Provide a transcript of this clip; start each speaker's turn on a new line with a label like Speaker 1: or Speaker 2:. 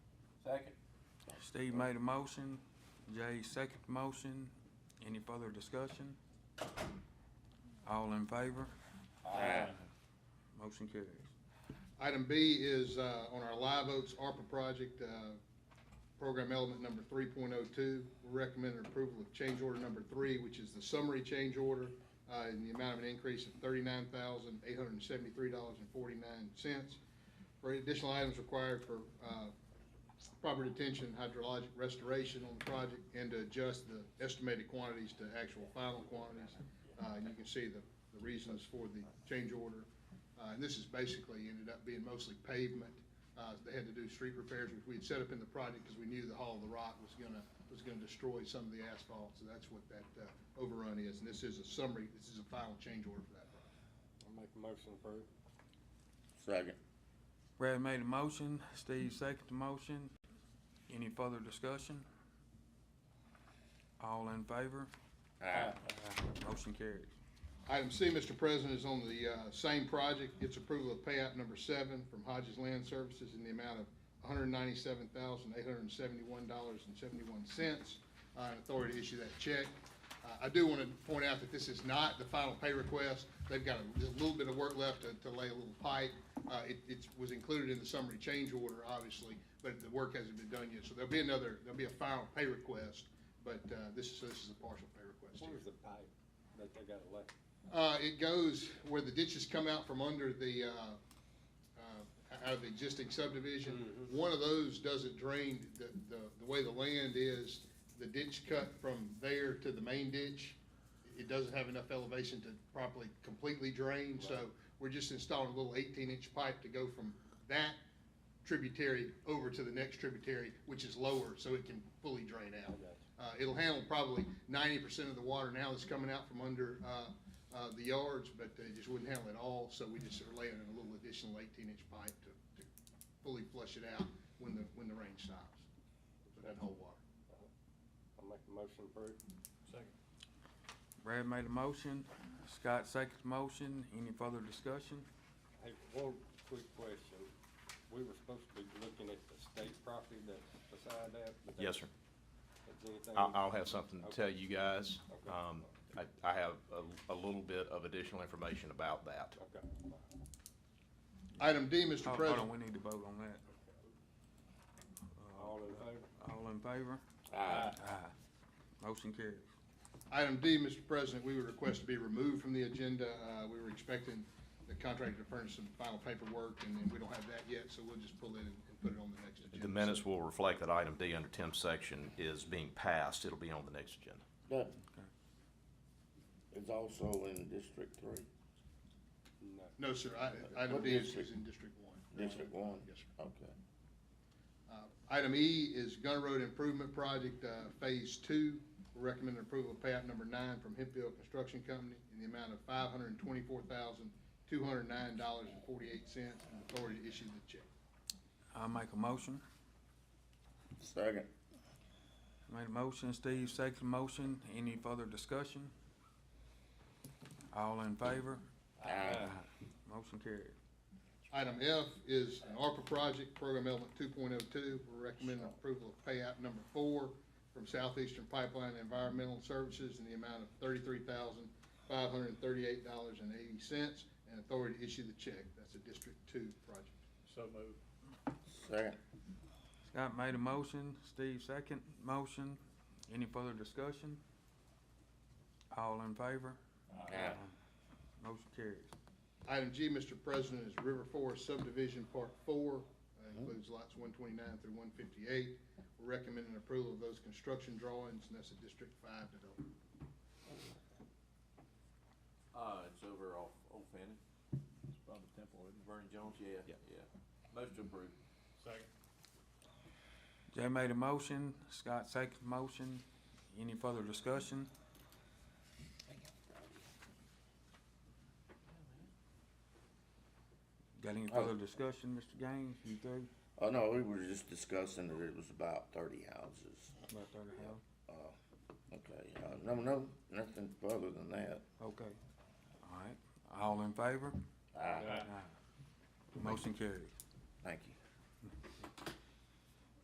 Speaker 1: Steve made a motion, Jay second motion. Any further discussion? All in favor? Motion carries.
Speaker 2: Item B is, uh, on our Live Oaks ARPA project, uh, program element number three point oh two. Recommended approval of change order number three, which is the summary change order, uh, in the amount of an increase of thirty-nine thousand, eight hundred and seventy-three dollars and forty-nine cents. For additional items required for, uh, proper detention, hydrologic restoration on the project, and to adjust the estimated quantities to actual final quantities. Uh, you can see the, the reasons for the change order. Uh, and this is basically ended up being mostly pavement. Uh, they had to do street repairs, which we had set up in the project because we knew the Hall of the Rock was gonna, was gonna destroy some of the asphalt. So that's what that, uh, overrun is. And this is a summary, this is a final change order for that project.
Speaker 3: I'll make a motion to approve.
Speaker 4: Second.
Speaker 1: Brad made a motion, Steve second the motion. Any further discussion? All in favor?
Speaker 4: Aye.
Speaker 1: Motion carries.
Speaker 2: Item C, Mr. President, is on the uh, same project. It's approval of payout number seven from Hodges Land Services in the amount of $197,871.71. uh, and Authority to issue that check. Uh, I do want to point out that this is not the final pay request. They've got a just a little bit of work left to- to lay a little pipe. Uh, It it was included in the summary change order, obviously, but the work hasn't been done yet. So there'll be another, there'll be a final pay request, but uh, this is, this is a partial pay request. here.
Speaker 3: Where's the pipe that they got left?
Speaker 2: Uh, it goes where the ditches come out from under the, uh, uh, out of the existing subdivision. One of those doesn't drain, the, the, the way the land is, the ditch cut from there to the main ditch, it doesn't have enough elevation to properly completely drain, so we're just installing a little eighteen-inch pipe to go from that tributary over to the next tributary, which is lower, so it can fully drain out.
Speaker 3: got you.
Speaker 2: Uh, it'll handle probably ninety percent of the water now that's coming out from under, uh, uh, the yards, but it just wouldn't handle it all, so we just are laying in a little additional eighteen-inch pipe to, to fully flush it out when the, when the rain stops, so that whole water.
Speaker 3: I'll make a motion to approve.
Speaker 1: Brad made a motion, Scott second the motion. Any further discussion?
Speaker 3: Hey, one quick question. We were supposed to be looking at the state property that's beside that, but.
Speaker 5: Yes, sir.
Speaker 3: Is anything?
Speaker 5: I'll, I'll have something to tell you guys.
Speaker 3: Okay.
Speaker 5: Um, I, I have a, a little bit of additional information about that.
Speaker 3: Okay.
Speaker 2: Item D, Mr.
Speaker 1: Oh,
Speaker 2: President.
Speaker 1: Hold on, we need to vote on that.
Speaker 3: All in favor?
Speaker 1: All in favor?
Speaker 4: Aye.
Speaker 1: Motion carries.
Speaker 2: Item D, Mr. President, we would request to be removed from the agenda. Uh, we were expecting the contractor to furnish some final paperwork, and then we don't have that yet, so we'll just pull it and and put it on the next agenda.
Speaker 5: The minutes will reflect that item D under Tim's section is being passed. It'll be on the next agenda.
Speaker 4: But it's also in District Three,
Speaker 2: Mm-hmm.
Speaker 3: No.
Speaker 2: No, sir, I- item
Speaker 4: What
Speaker 2: D is,
Speaker 4: district?
Speaker 2: is in District One.
Speaker 4: District One?
Speaker 2: Yes, sir.
Speaker 4: Okay.
Speaker 2: Uh, Item E is Gunner Road Improvement Project, uh, Phase Two. Recommended approval of payout number nine from Hempfield Construction Company in the amount of five hundred and twenty-four thousand, two hundred and nine dollars and forty-eight cents, and authority to issue the check.
Speaker 1: I'll make a motion.
Speaker 4: Second.
Speaker 1: Made a motion, Steve second motion. Any further discussion? All in favor?
Speaker 2: Ah.
Speaker 4: Aye.
Speaker 1: Motion carries.
Speaker 2: Item F is an ARPA project, program element two point oh two. We're recommending approval of payout number four from Southeastern Pipeline Environmental Services in the amount of thirty-three thousand, five hundred and thirty-eight dollars and eighty cents, and authority to issue the check. That's a District Two project.
Speaker 4: Second.
Speaker 1: Scott made a motion, Steve second motion. Any further discussion? All in favor?
Speaker 4: Aye.
Speaker 1: Motion carries.
Speaker 2: Item G, Mr. President, is River Forest subdivision part four, uh, includes lots one twenty-nine through one fifty-eight. We're recommending approval of those construction drawings, and that's a District Five development.
Speaker 6: Uh, it's over off Old Fannin. It's by the temple, isn't it? Vernon Jones, yeah,
Speaker 5: Yeah.
Speaker 6: yeah. Most approved.
Speaker 1: Jay made a motion, Scott second motion. Any further discussion? Got any further discussion, Mr. Gaines? You through?
Speaker 4: Oh, no, we were just discussing that it was about thirty houses.
Speaker 1: About thirty house?
Speaker 4: Okay, uh, no, no, nothing further than that.
Speaker 1: Okay. All right. All in favor?
Speaker 4: Aye.
Speaker 1: Motion carries.
Speaker 4: Thank you.